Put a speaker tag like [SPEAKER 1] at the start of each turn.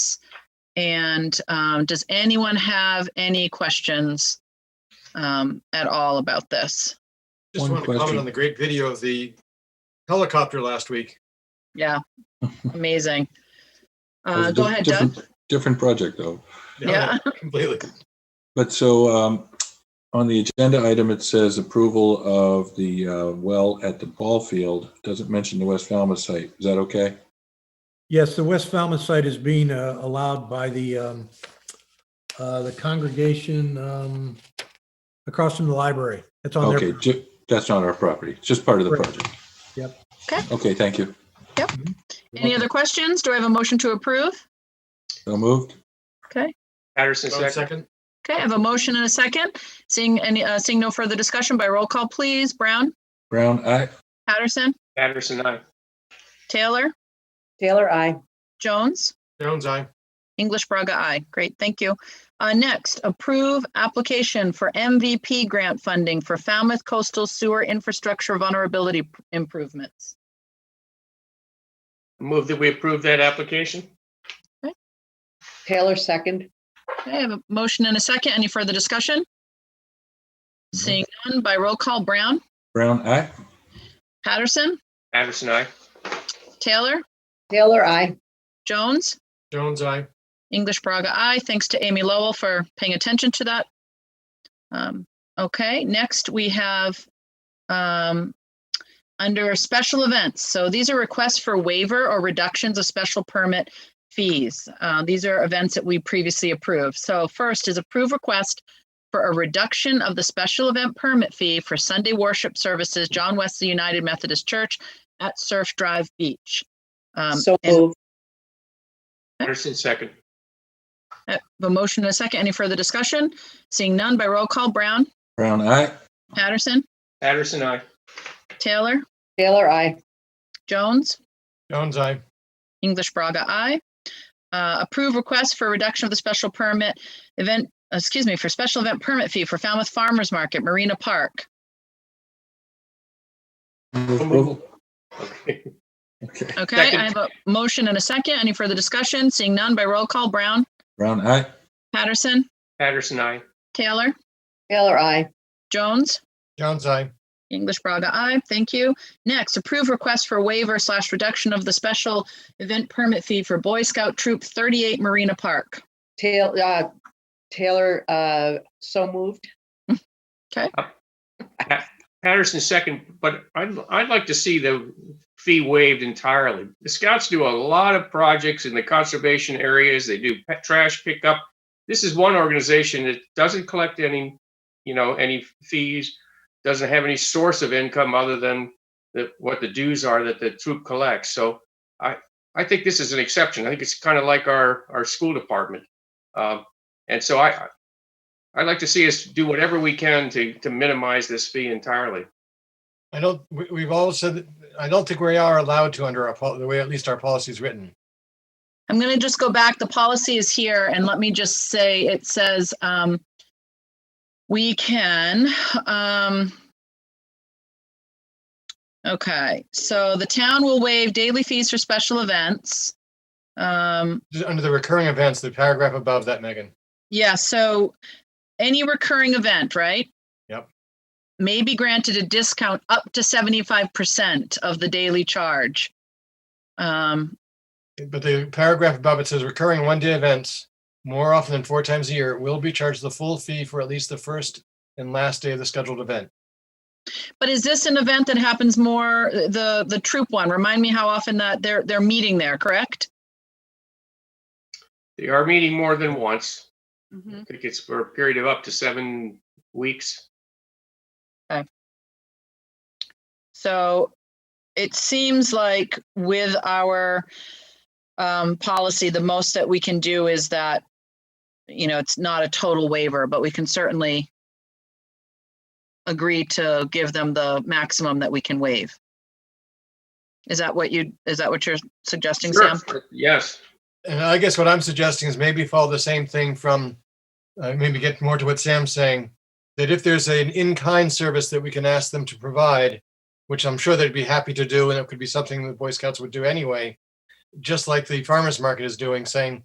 [SPEAKER 1] And um, does anyone have any questions um, at all about this?
[SPEAKER 2] Just
[SPEAKER 3] One
[SPEAKER 2] wanted to
[SPEAKER 3] question.
[SPEAKER 2] comment on the great video of the helicopter last week.
[SPEAKER 1] Yeah, amazing.
[SPEAKER 3] That was
[SPEAKER 1] Uh,
[SPEAKER 3] a
[SPEAKER 1] go
[SPEAKER 3] diff-
[SPEAKER 1] ahead, Doug.
[SPEAKER 3] different- Different project though.
[SPEAKER 1] Yeah.
[SPEAKER 2] Completely.
[SPEAKER 3] But so um, on the agenda item, it says approval of the uh, well at the ball field. Doesn't mention the West Falmouth site. Is that okay?
[SPEAKER 4] Yes, the West Falmouth site is being uh, allowed by the, um, uh, the congregation um, across from the library. It's on
[SPEAKER 3] Okay,
[SPEAKER 4] there.
[SPEAKER 3] ju- that's not our property. It's just part of the
[SPEAKER 4] Right.
[SPEAKER 3] project.
[SPEAKER 4] Yep.
[SPEAKER 1] Okay.
[SPEAKER 3] Okay, thank you.
[SPEAKER 1] Any other questions? Do I have a motion to approve?
[SPEAKER 3] So moved?
[SPEAKER 5] Patterson
[SPEAKER 2] One
[SPEAKER 5] second.
[SPEAKER 2] second.
[SPEAKER 1] Okay, I have a motion and a second. Seeing any, uh, seeing no further discussion by roll call, please. Brown,
[SPEAKER 3] Brown, aye.
[SPEAKER 1] Patterson,
[SPEAKER 5] Patterson, aye.
[SPEAKER 1] Taylor,
[SPEAKER 6] Taylor, I.
[SPEAKER 1] Jones,
[SPEAKER 2] Jones, aye.
[SPEAKER 1] English Braga, I. Great, thank you. Uh, next, approve application for MVP grant funding for Falmouth coastal sewer infrastructure vulnerability p- improvements.
[SPEAKER 5] Move that we approve that application?
[SPEAKER 6] Taylor, second.
[SPEAKER 1] Okay, I have a motion and a second. Any further discussion? Seeing none by roll call, Brown,
[SPEAKER 3] Brown, aye.
[SPEAKER 1] Patterson,
[SPEAKER 5] Patterson, aye.
[SPEAKER 1] Taylor,
[SPEAKER 6] Taylor, I.
[SPEAKER 1] Jones,
[SPEAKER 2] Jones, aye.
[SPEAKER 1] English Braga, I. Thanks to Amy Lowell for paying attention to that. Um, okay, next we have um, under special events. So these are requests for waiver or reductions of special permit fees. Uh, these are events that we previously approved. So first is approve request for a reduction of the special event permit fee for Sunday worship services, John Wesley United Methodist Church at Surf Drive Beach. Um,
[SPEAKER 6] So
[SPEAKER 1] and-
[SPEAKER 6] moved.
[SPEAKER 5] Patterson, second.
[SPEAKER 1] I have Uh, A motion and a second. Any further discussion? Seeing none by roll call, Brown,
[SPEAKER 3] Brown, aye.
[SPEAKER 1] Patterson,
[SPEAKER 5] Patterson, aye.
[SPEAKER 1] Taylor,
[SPEAKER 6] Taylor, I.
[SPEAKER 1] Jones,
[SPEAKER 2] Jones, aye.
[SPEAKER 1] English Braga, I Uh, approve request for reduction of the special permit event, excuse me, for special event permit fee for Falmouth Farmers Market, Marina Park.
[SPEAKER 3] Move approval?
[SPEAKER 5] Okay.
[SPEAKER 3] Okay.
[SPEAKER 1] Okay,
[SPEAKER 5] Second.
[SPEAKER 1] I have a motion and a second. Any further discussion? Seeing none by roll call, Brown,
[SPEAKER 3] Brown, aye.
[SPEAKER 1] Patterson,
[SPEAKER 5] Patterson, aye.
[SPEAKER 1] Taylor,
[SPEAKER 6] Taylor, I.
[SPEAKER 1] Jones,
[SPEAKER 2] Jones, aye.
[SPEAKER 1] English Braga, I Thank you. Next, approve request for waiver slash reduction of the special event permit fee for Boy Scout Troop 38 Marina Park.
[SPEAKER 6] Taylor, uh, Taylor, uh, so moved.
[SPEAKER 5] Pa- Patterson, second, but I'd, I'd like to see the fee waived entirely. The scouts do a lot of projects in the conservation areas. They do pet trash pickup. This is one organization that doesn't collect any, you know, any fees, doesn't have any source of income other than the, what the dues are that the troop collects. So I, I think this is an exception. I think it's kind of like our, our school department. Um, and so I, I'd like to see us do whatever we can to, to minimize this fee entirely.
[SPEAKER 2] I don't, we, we've all said, that- I don't think we are allowed to under our, pol- the way at least our policy is written.
[SPEAKER 1] I'm going to just go back. The policy is here and let me just say, it says, um, we can, um, okay, so the town will waive daily fees for special events. Um,
[SPEAKER 2] Just under the recurring events, the paragraph above that, Megan.
[SPEAKER 1] Yeah, so any recurring event, right?
[SPEAKER 2] Yep.
[SPEAKER 1] May be granted a discount up to seventy-five percent of the daily charge. Um,
[SPEAKER 2] But the paragraph above it says recurring one-day events more often than four times a year will be charged the full fee for at least the first and last day of the scheduled event.
[SPEAKER 1] but is this an event that happens more, the, the troop one? Remind me how often that they're, they're meeting there, correct?
[SPEAKER 5] They are meeting more than once. I think it's for a period of up to seven weeks.
[SPEAKER 1] So it seems like with our um, policy, the most that we can do is that, you know, it's not a total waiver, but we can certainly agree to give them the maximum that we can waive. Is that what you, is that what you're suggesting, Sam?
[SPEAKER 5] Sure. Yes,
[SPEAKER 2] And I guess what I'm suggesting is maybe follow the same thing from, uh, maybe get more to what Sam's saying, that if there's an in-kind service that we can ask them to provide, which I'm sure they'd be happy to do, and it could be something that Boy Scouts would do anyway, just like the farmer's market is doing, saying,